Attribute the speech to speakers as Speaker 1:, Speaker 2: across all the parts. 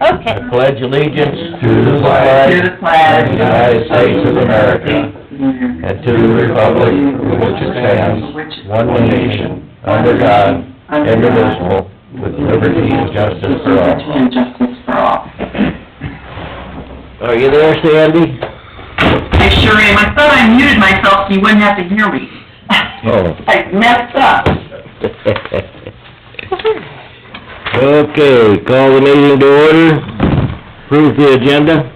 Speaker 1: I pledge allegiance to the
Speaker 2: To the
Speaker 1: flag
Speaker 2: flag
Speaker 1: of the United States of America and to the republic for which it stands, one nation, under God, indivisible, with liberty and justice for all.
Speaker 2: And justice for all.
Speaker 1: Are you there, Sandy?
Speaker 2: I sure am. I thought I muted myself so you wouldn't have to hear me.
Speaker 1: Oh.
Speaker 2: I messed up.
Speaker 1: Okay, call the meeting to order, approve the agenda.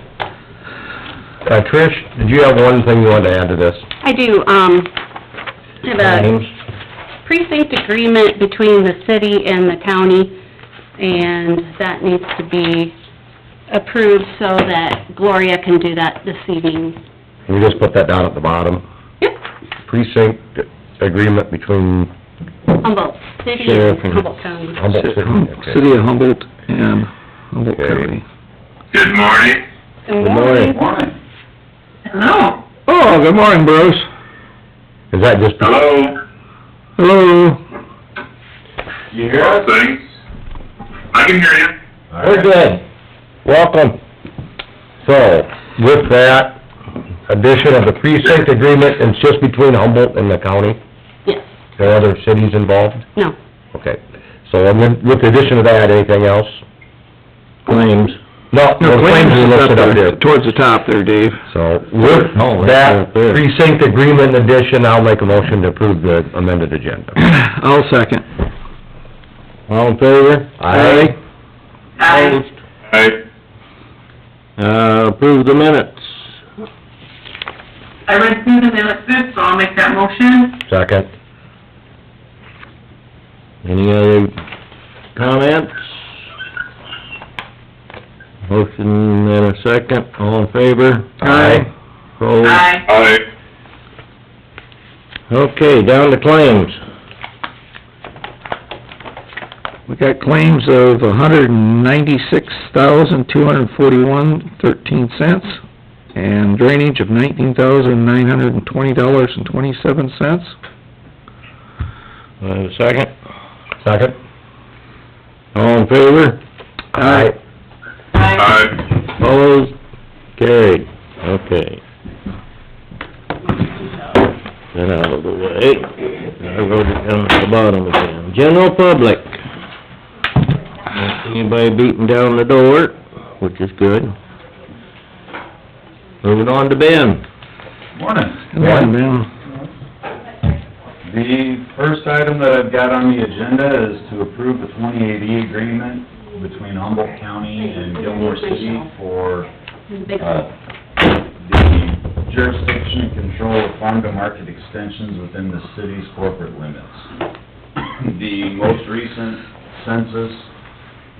Speaker 1: Uh, Trish, did you have one thing you wanted to add to this?
Speaker 3: I do, um, I have
Speaker 1: Um,
Speaker 3: a precinct agreement between the city and the county, and that needs to be approved so that Gloria can do that this evening.
Speaker 1: Can you just put that down at the bottom?
Speaker 3: Yep,
Speaker 1: Precinct agreement between
Speaker 3: Humboldt City and
Speaker 1: Sheriff and-
Speaker 3: Humboldt County.
Speaker 1: Humboldt City. okay.
Speaker 4: City of Humboldt and Humboldt
Speaker 1: Okay.
Speaker 4: County.
Speaker 5: Good morning.
Speaker 1: Good morning.
Speaker 2: Hello.
Speaker 4: Oh, good morning, Bruce.
Speaker 1: Is that just,
Speaker 5: Hello.
Speaker 4: Hello.
Speaker 5: You hear us? Things. I can hear you.
Speaker 1: we're good, welcome. So, with that addition of the precinct agreement, it's just between Humboldt and the county,
Speaker 3: Yes,
Speaker 1: there are other cities involved?
Speaker 3: no,
Speaker 1: Okay, so and then with the addition of that, anything else?
Speaker 4: Claims.
Speaker 1: No,
Speaker 4: No,
Speaker 1: the claims are listed up there.
Speaker 4: Towards the top there, Dave.
Speaker 1: So with
Speaker 4: No, it's
Speaker 1: that
Speaker 4: up there.
Speaker 1: precinct agreement addition, I'll make a motion to approve the amended agenda.
Speaker 4: I'll second.
Speaker 1: All in favor?
Speaker 4: Aye.
Speaker 2: Hi.
Speaker 5: Hi.
Speaker 1: Uh, approve the minutes.
Speaker 2: I read through the minutes, good, so I'll make that motion.
Speaker 1: Second. Any other comments? Motion and a second, all in favor?
Speaker 4: Aye.
Speaker 1: Opposed?
Speaker 2: Aye.
Speaker 5: Hi.
Speaker 1: Okay, down to claims.
Speaker 4: We got claims of a hundred and ninety-six thousand, two hundred and forty-one, thirteen cents, and drainage of nineteen thousand, nine hundred and twenty dollars and twenty-seven cents.
Speaker 1: Uh, second? Second. All in favor?
Speaker 4: Aye.
Speaker 2: Aye.
Speaker 5: Hi.
Speaker 1: Opposed? Carried. Okay. Get out of the way. I wrote it down at uh, the bottom again. General public. Don't see Anybody beating down the door, which is good. Moving on to Ben.
Speaker 6: Morning.
Speaker 4: Good morning, Ben.
Speaker 6: The first item that I've got on the agenda is to approve the 2080 agreement between Humboldt County and Gilmore City for
Speaker 3: big
Speaker 6: uh, the jurisdiction and control of farm-to-market extensions within the city's corporate limits. The most recent census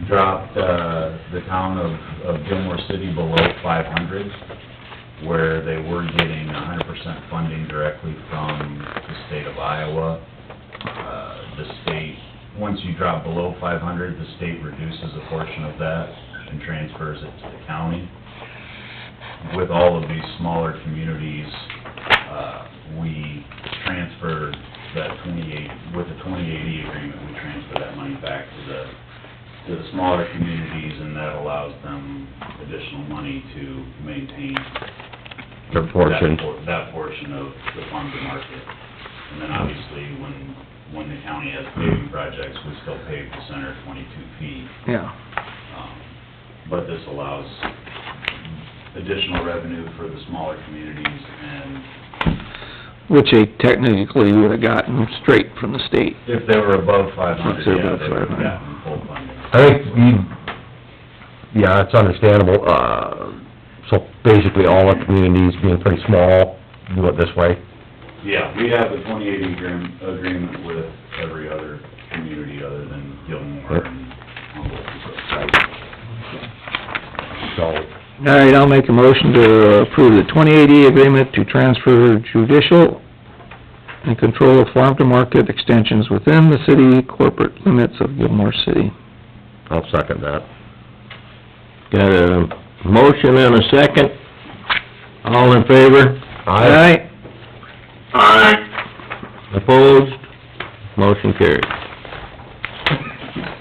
Speaker 6: dropped uh, the town of of Gilmore City below 500, where they were getting 100% funding directly from the state of Iowa. Uh, The state, once you drop below 500, the state reduces a portion of that and transfers it to the county with all of these smaller communities, uh, we transferred that twenty-eight, with the twenty-eighty agreement, we transfer that money back to the, to the smaller communities, and that allows them additional money to maintain.
Speaker 1: Their portion.
Speaker 6: that por- That portion of the farm to market. And then obviously, when, when the county has paving projects, we still pave the center twenty-two feet.
Speaker 4: Yeah.
Speaker 6: Um, But this allows additional revenue for the smaller communities and
Speaker 4: Which they technically would've gotten straight from the state.
Speaker 6: if they were above five
Speaker 4: If
Speaker 6: hundred,
Speaker 4: they're
Speaker 6: yeah,
Speaker 4: above
Speaker 6: they would have
Speaker 4: 500.
Speaker 6: gotten full funding.
Speaker 1: I think we, yeah, it's understandable, uh, so basically all our communities being pretty small, do it this way.
Speaker 6: Yeah, we have a twenty eighty agreement, agreement with every other community other than Gilmore and Humboldt.
Speaker 1: So,
Speaker 4: All right, I'll make a motion to approve the 2080 agreement to transfer judicial and control of farm-to-market extensions within the city corporate limits of Gilmore City.
Speaker 1: I'll second that. Got a motion and a second. All in favor?
Speaker 4: Aye.
Speaker 5: Hi.
Speaker 1: Opposed? Motion carried.